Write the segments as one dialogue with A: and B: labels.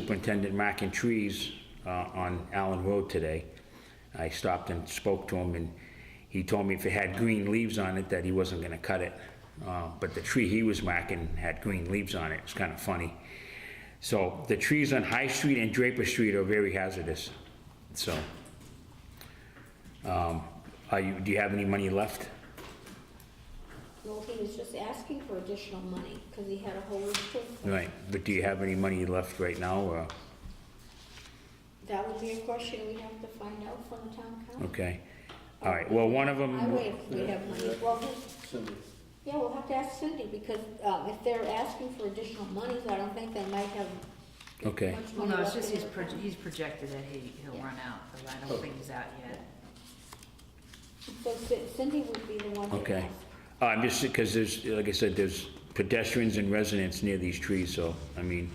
A: Superintendent marking trees uh, on Allen Road today. I stopped and spoke to him, and he told me if it had green leaves on it, that he wasn't gonna cut it. Uh, But the tree he was marking had green leaves on it, it's kind of funny. So the trees on High Street and Draper Street are very hazardous, so. um, Are you, do you have any money left?
B: Well, he was just asking for additional money, because he had a whole list of,
A: Right, but do you have any money left right now, or?
B: that would be a question we have to find out from the town council.
A: Okay, all right, well, one of them.
B: I would if we have money, well, who-
C: Cindy,
B: yeah, we'll have to ask Cindy, because, um, if they're asking for additional monies, I don't think they might have
A: Okay.
B: much
D: Well,
B: money
D: no, it's
B: left
D: just
B: in
D: he's,
B: their
D: proj-
B: account.
D: he's projected that he, he'll
B: Yeah.
D: run out, but I
A: Oh.
D: don't think he's out yet.
B: So Ci- Cindy would be the one to
A: Okay.
B: ask.
A: Uh, I'm just, because there's, like I said, there's pedestrians and residents near these trees, so, I mean,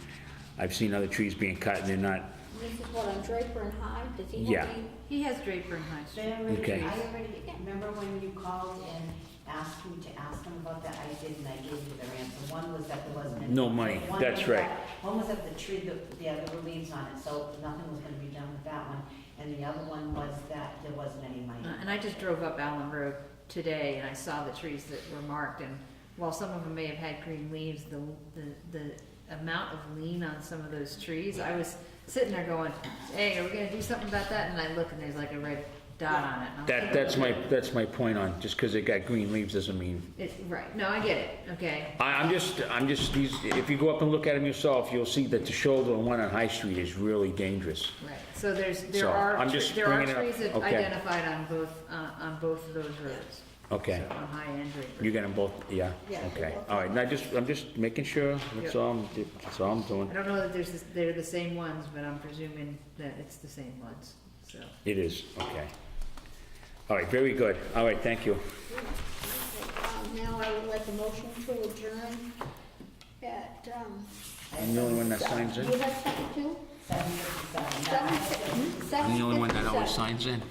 A: I've seen other trees being cut and they're not,
B: This is what, on Draper and Hyde, does he
A: Yeah.
B: have any?
D: He has Draper and High Street.
E: They already,
A: Okay.
E: I already, remember when you called and asked me to ask them about that, I did, and I gave you the answer, one was that there wasn't. any-
A: No money,
E: one
A: that's
E: was
A: right.
E: that- One was that the tree, that the other were leaves on it, so nothing was gonna be done with that one, and the other one was that there wasn't any money.
D: Uh, And I just drove up Allen Road today and I saw the trees that were marked and while some of them may have had green leaves, the, the, the amount of lean on some of those trees, I was sitting there going, hey, are we gonna do something about that? And I look and there's like a red dot on it. and I'm
A: that,
D: thinking,
A: that's my, that's my point on, just because it got green leaves doesn't mean.
D: It, right, no, I get it, okay.
A: I, I'm just, I'm just, these, if you go up and look at them yourself, you'll see that the shoulder one on High Street is really dangerous.
D: Right, so there's,
A: So,
D: there are,
A: I'm
D: tre-
A: just
D: there are
A: bringing it up.
D: trees that
A: Okay.
D: identified on both, uh, on both of those roads.
A: Okay.
D: So, On High and Draper.
A: You got them both, yeah?
B: Yeah, they
A: Okay,
B: both-
A: all right, now just, I'm just making sure, that's
D: Yeah.
A: all, I'm that's all I'm doing.
D: I don't know that there's, this- they're the same ones, but I'm presuming that it's the same ones, so.
A: It is, okay. All right, very good, all right, thank you.
B: Um, Now I would like a motion to adjourn at, um.
A: I'm the only one that signs
B: Do
A: in?
B: you have second too?
E: Seven fifty-seven, that
B: Seven,
E: was-
B: seven
A: I'm the only one that always
B: 57.
A: signs in.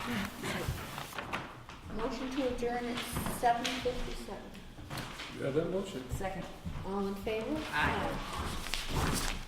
B: Motion to adjourn at seven fifty-seven.
C: you have that motion?
D: Second.
B: All in favor?
D: Aye.
B: Aye.